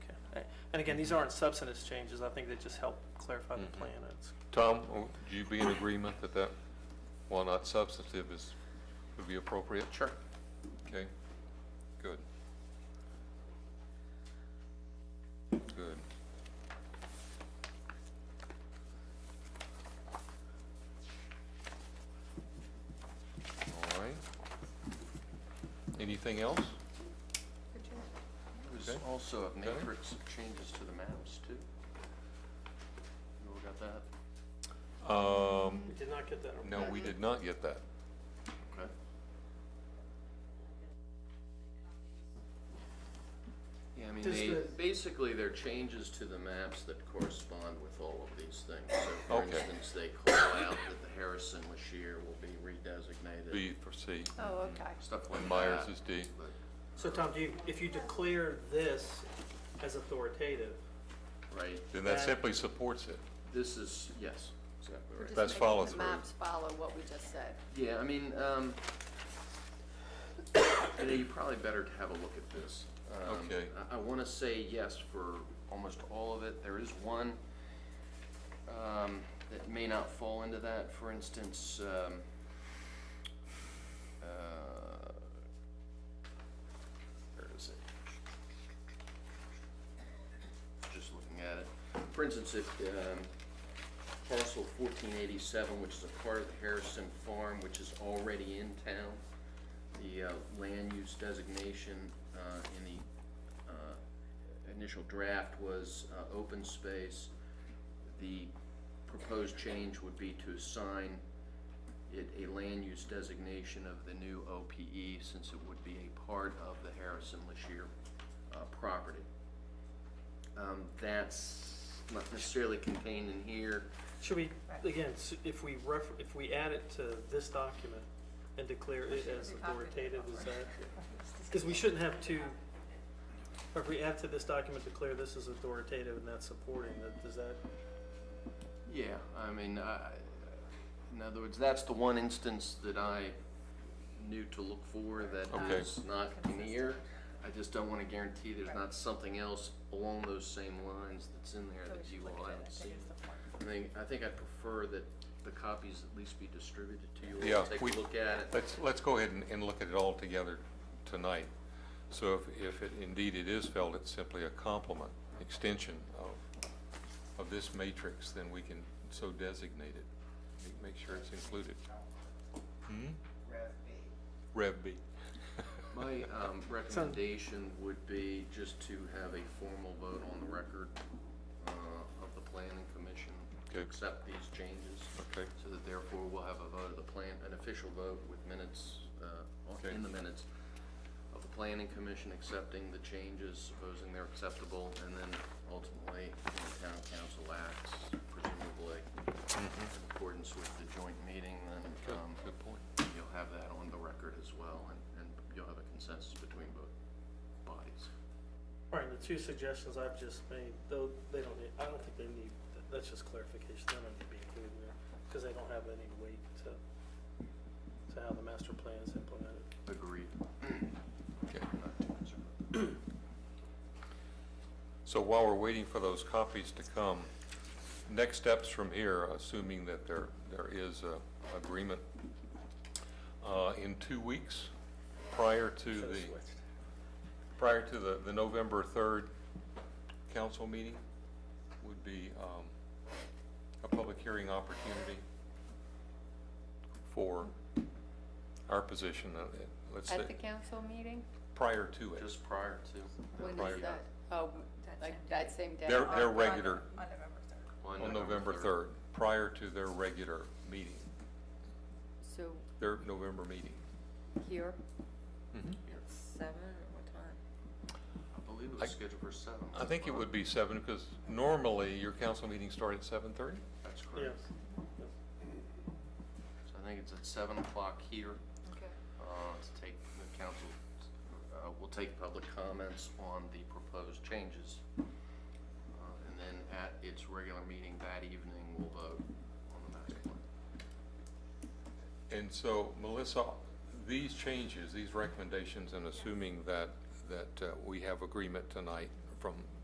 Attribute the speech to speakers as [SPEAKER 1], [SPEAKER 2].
[SPEAKER 1] And again, these aren't substantive changes, I think they just help clarify the
[SPEAKER 2] Mhm.
[SPEAKER 1] plan. It's-
[SPEAKER 2] Tom, would you be in agreement that that, while not substantive, is, would be appropriate?
[SPEAKER 3] Sure.
[SPEAKER 2] Okay, good. Good. All right. Anything else?
[SPEAKER 3] There's
[SPEAKER 2] Okay.
[SPEAKER 3] also a
[SPEAKER 2] Okay.
[SPEAKER 3] matrix of changes to the maps too. You all got that?
[SPEAKER 2] Um,
[SPEAKER 1] We did not get that.
[SPEAKER 2] no, we did not get that.
[SPEAKER 3] Okay. Yeah, I mean,
[SPEAKER 1] Does
[SPEAKER 3] they,
[SPEAKER 1] the-
[SPEAKER 3] basically, they're changes to the maps that correspond with all of these things. So for
[SPEAKER 2] Okay.
[SPEAKER 3] instance, they call out that the Harrison Lashir will be redesignated,
[SPEAKER 2] B for C,
[SPEAKER 4] Oh, okay.
[SPEAKER 3] stuff like that.
[SPEAKER 2] and Myers is D.
[SPEAKER 3] But,
[SPEAKER 1] So Tom, do you, if you declare this as authoritative,
[SPEAKER 3] right,
[SPEAKER 2] Then that
[SPEAKER 1] That-
[SPEAKER 2] simply supports it.
[SPEAKER 3] this is, yes, exactly
[SPEAKER 4] We're
[SPEAKER 3] right.
[SPEAKER 4] just
[SPEAKER 2] That's
[SPEAKER 4] making
[SPEAKER 2] follow
[SPEAKER 4] The
[SPEAKER 2] through.
[SPEAKER 4] maps follow what we just said.
[SPEAKER 3] Yeah, I mean, um, you know, you probably better to have a look at this. Um,
[SPEAKER 2] Okay.
[SPEAKER 3] I, I wanna say yes for almost all of it. There is one, um, that may not fall into that. For instance, um, uh, where is it? Just looking at it. For instance, if, um, parcel fourteen eighty-seven, which is a part of the Harrison Farm, which is already in town. The uh, land use designation uh, in the uh, initial draft was uh, open space. The proposed change would be to assign it a land use designation of the new OPE, since it would be a part of the Harrison Lashir uh, property. Um, That's not necessarily contained in here.
[SPEAKER 1] should we, again, s- if we ref, if we add it to this document and declare it as authoritative, is that? Because we shouldn't have two, or if we add to this document, declare this as authoritative and that's supporting, that, does that?
[SPEAKER 3] Yeah, I mean, I, in other words, that's the one instance that I knew to look for that
[SPEAKER 2] Okay.
[SPEAKER 3] is not in here. I just don't wanna guarantee there's not something else along those same lines that's in there
[SPEAKER 4] So we
[SPEAKER 3] that
[SPEAKER 4] should
[SPEAKER 3] you
[SPEAKER 4] look
[SPEAKER 3] all
[SPEAKER 4] at it. I
[SPEAKER 3] haven't
[SPEAKER 4] think
[SPEAKER 3] seen.
[SPEAKER 4] it's the point.
[SPEAKER 3] I think, I think I'd prefer that the copies at least be distributed to you all,
[SPEAKER 2] Yeah,
[SPEAKER 3] take a
[SPEAKER 2] we-
[SPEAKER 3] look at it.
[SPEAKER 2] Let's, let's go ahead and, and look at it all together tonight. So if, if it, indeed it is felt, it's simply a complement, extension of, of this matrix, then we can so designate it. Make- Make sure it's included. Hmm? Rev B.
[SPEAKER 3] My um, recommendation would be just to have a formal vote on the record uh, of the planning commission to
[SPEAKER 2] Okay.
[SPEAKER 3] accept these changes.
[SPEAKER 2] Okay.
[SPEAKER 3] So that therefore we'll have a vote of the plan, an official vote with minutes, uh,
[SPEAKER 2] Okay.
[SPEAKER 3] in the minutes of the planning commission accepting the changes, supposing they're acceptable, and then ultimately the town council acts presumably
[SPEAKER 2] Mm-hmm.
[SPEAKER 3] in accordance with the joint meeting,
[SPEAKER 2] Good,
[SPEAKER 3] then um,
[SPEAKER 2] good point.
[SPEAKER 3] You'll have that on the record as well, and, and you'll have a consensus between both bodies.
[SPEAKER 1] All right, the two suggestions I've just made, though, they don't need, I don't think they need, that's just clarification, they don't need to be included there, because they don't have any weight to, to how the master plan is implemented.
[SPEAKER 3] Agreed.
[SPEAKER 2] Okay.
[SPEAKER 3] Not too concerned.
[SPEAKER 2] So while we're waiting for those copies to come, next steps from here, assuming that there, there is a agreement, uh, in two weeks, prior to
[SPEAKER 1] Should've
[SPEAKER 2] the,
[SPEAKER 1] switched.
[SPEAKER 2] prior to the, the November third council meeting, would be, um, a public hearing opportunity for our position, uh, let's say,
[SPEAKER 4] At the council meeting?
[SPEAKER 2] prior to it.
[SPEAKER 3] Just prior to,
[SPEAKER 4] When
[SPEAKER 2] prior.
[SPEAKER 4] is that? Oh, like that same day?
[SPEAKER 2] Their,
[SPEAKER 4] Oh,
[SPEAKER 2] their regular
[SPEAKER 3] on
[SPEAKER 2] on November 3rd, prior to their regular meeting,
[SPEAKER 4] So
[SPEAKER 2] their November meeting.
[SPEAKER 4] here,
[SPEAKER 3] Here.
[SPEAKER 4] seven, or what time?
[SPEAKER 3] I believe it
[SPEAKER 2] I-
[SPEAKER 3] was scheduled for seven.
[SPEAKER 2] I think it would be seven, because normally your council meetings start at 7:30?
[SPEAKER 3] That's
[SPEAKER 1] Yes.
[SPEAKER 3] correct. So I think it's at seven o'clock here,
[SPEAKER 4] Okay.
[SPEAKER 3] uh, to take, the council, uh, will take public comments on the proposed changes. Uh, And then at its regular meeting that evening, we'll vote on the master plan.
[SPEAKER 2] And so Melissa, these changes, these recommendations, and assuming that, that uh, we have agreement tonight from